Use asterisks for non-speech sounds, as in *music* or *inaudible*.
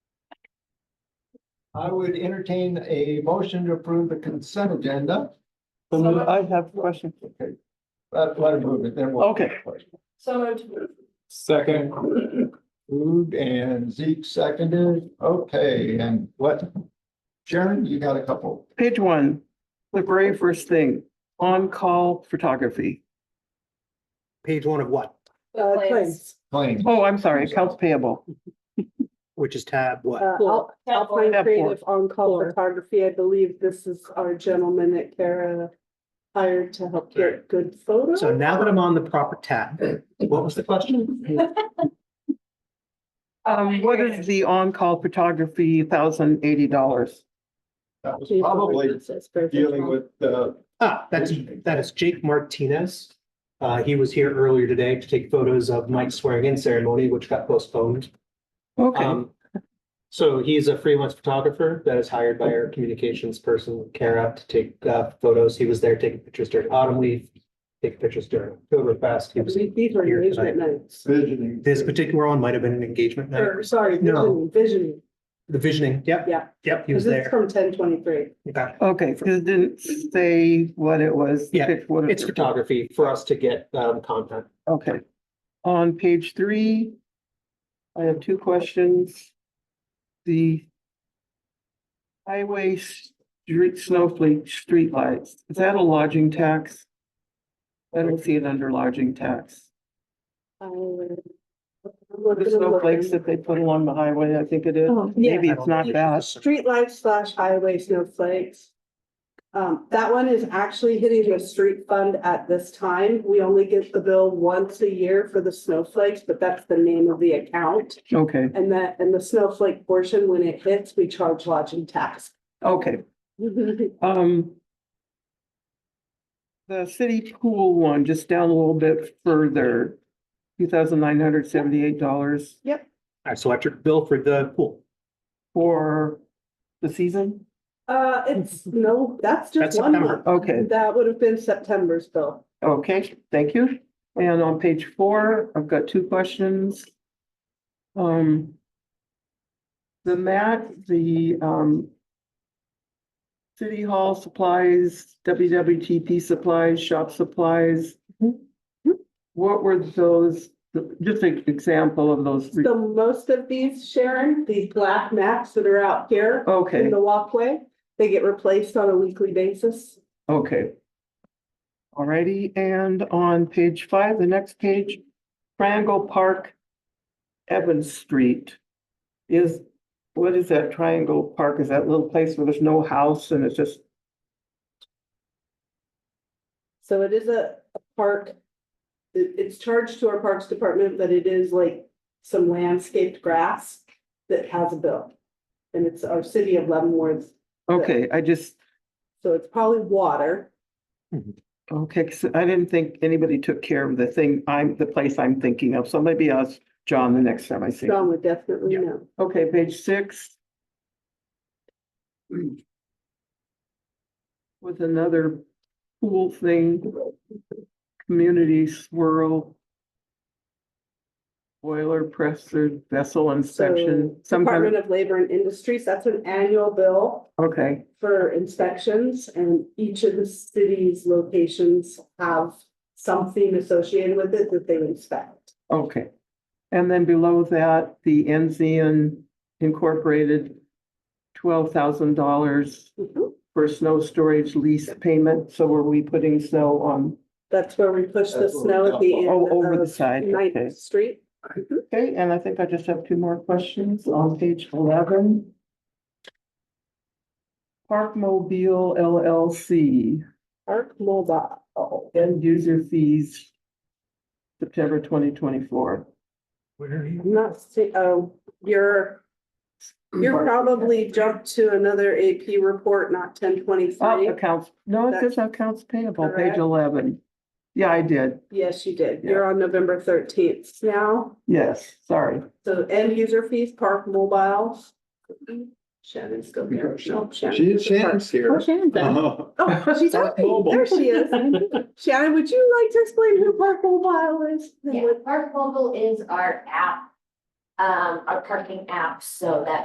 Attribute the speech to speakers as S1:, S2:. S1: I would entertain a motion to approve the consent agenda.
S2: So moved. I have a question.
S1: Okay. Let, Uh, let it move it, then we'll.
S2: Okay.
S3: So moved.
S1: Second. Moved and Zeke seconded. Okay, and what? Sharon, you got a couple.
S2: Page one, the very first thing, on-call photography.
S4: Page one of what?
S3: Uh, claims.
S1: Claims.
S2: Oh, I'm sorry, accounts payable.
S4: Which is tab what?
S5: Uh, I'll, I'll find
S2: Tab four.
S5: creative on-call photography. I believe this is our gentleman that Kara hired to help get good photos.
S4: So now that I'm on the proper tab, what was the question?
S5: *laughs*
S2: Um, what is the on-call photography, thousand eighty dollars?
S1: That was
S5: Jason
S1: probably
S5: Richards is perfect.
S1: dealing with the,
S4: Ah, that's, that is Jake Martinez. Uh, he was here earlier today to take photos of Mike's swearing in ceremony, which got postponed.
S2: Okay,
S4: Um, so he's a freelance photographer that is hired by our communications person, Kara, to take uh, photos. He was there taking pictures during autumn leaf, taking pictures during Oktoberfest. He was-
S5: These are
S4: here
S5: engagement
S4: tonight.
S5: nights.
S1: visioning.
S4: This particular one might have been an engagement night.
S5: Or, sorry,
S4: No.
S5: visioning, visioning.
S4: The visioning, yep.
S5: Yeah.
S4: Yep, he was
S5: This is
S4: there.
S5: from ten twenty-three.
S4: Okay.
S2: okay, 'cause it didn't say what it was.
S4: Yeah,
S2: Pick what it-
S4: It's photography for us to get um, content.
S2: Okay. On page three, I have two questions. The highway street snowflake streetlights, is that a lodging tax? I don't see it under lodging tax.
S5: uh,
S2: The snowflakes that they put along the highway, I think it is. Maybe
S5: Yeah,
S2: it's not that.
S5: streetlights slash highway snowflakes. Um, that one is actually hitting the street fund at this time. We only get the bill once a year for the snowflakes, but that's the name of the account.
S2: Okay,
S5: And that, and the snowflake portion, when it hits, we charge
S4: *laughs*
S5: lodging tax. Uh,
S2: okay. Um. The city pool one, just down a little bit further, two thousand nine hundred seventy-eight dollars
S4: Our electric bill for the pool.
S2: for the season?
S5: Uh, it's, no, that's
S4: That's
S5: just one
S4: September.
S5: month.
S2: Okay,
S5: That would have been September's bill.
S2: okay, thank you. And on page four, I've got two questions. Um. The mat, the um. City Hall supplies, WWTP supplies, shop supplies.
S5: Mm-hmm.
S2: What were those, just an example of those, three-
S5: So most of these, Sharon, these black mats that are out here in
S2: okay,
S5: the walkway, they get replaced on a weekly basis.
S2: okay. Alrighty, and on page five, the next page, Triangle Park, Evans Street. Is, what is that Triangle Park? Is that little place where there's no house and it's just,
S5: So it is a a park. It- it's charged to our Parks Department, but it is like some landscaped grass that has a bill. And it's our city of Leavenworth,
S2: okay, I just,
S5: so it's probably water.
S2: okay, 'cause I didn't think anybody took care of the thing, I'm, the place I'm thinking of, so maybe ask John the next time I see him.
S5: John would definitely
S4: Yeah.
S5: know.
S2: Okay, page six. With another pool thing, community swirl. Boiler pressure vessel inspection,
S5: So
S2: some kind
S5: Department
S2: of,
S5: of Labor and Industries, that's an annual bill
S2: okay,
S5: for inspections and each of the city's locations have something associated with it that they inspect.
S2: okay. And then below that, the Enzian Incorporated. Twelve thousand dollars
S5: Mhm.
S2: for snow storage lease payment, so were we putting snow on,
S5: That's where we push the
S1: That's what we
S5: snow at the end
S2: oh, over the
S5: of
S2: side? Okay.
S5: Ninth Street.
S2: Okay, and I think I just have two more questions on page eleven. Parkmobile LLC,
S5: Park Mobile.
S2: uh, end user fees. September twenty twenty-four.
S4: Where are you?
S5: I'm not see, oh, you're, you're probably jumped to another AP report, not ten
S2: Oh,
S5: twenty-three.
S2: accounts, no, it says accounts payable, page
S5: Correct.
S2: eleven. Yeah, I did,
S5: Yes, you did.
S2: Yeah.
S5: You're on November thirteenth now.
S2: yes, sorry.
S5: So end user fees, Park Mobile. Shannon's still here. No, Shannon.
S1: She is Shannon's
S5: Oh,
S1: here.
S5: Shannon's there.
S1: Oh,
S5: Oh, she's
S1: Park
S5: happy.
S1: Mobile.
S5: There she is. Shannon, would you like to explain who Park Mobile is?
S3: Yeah, Park Mobile is our app, um, our parking app, so that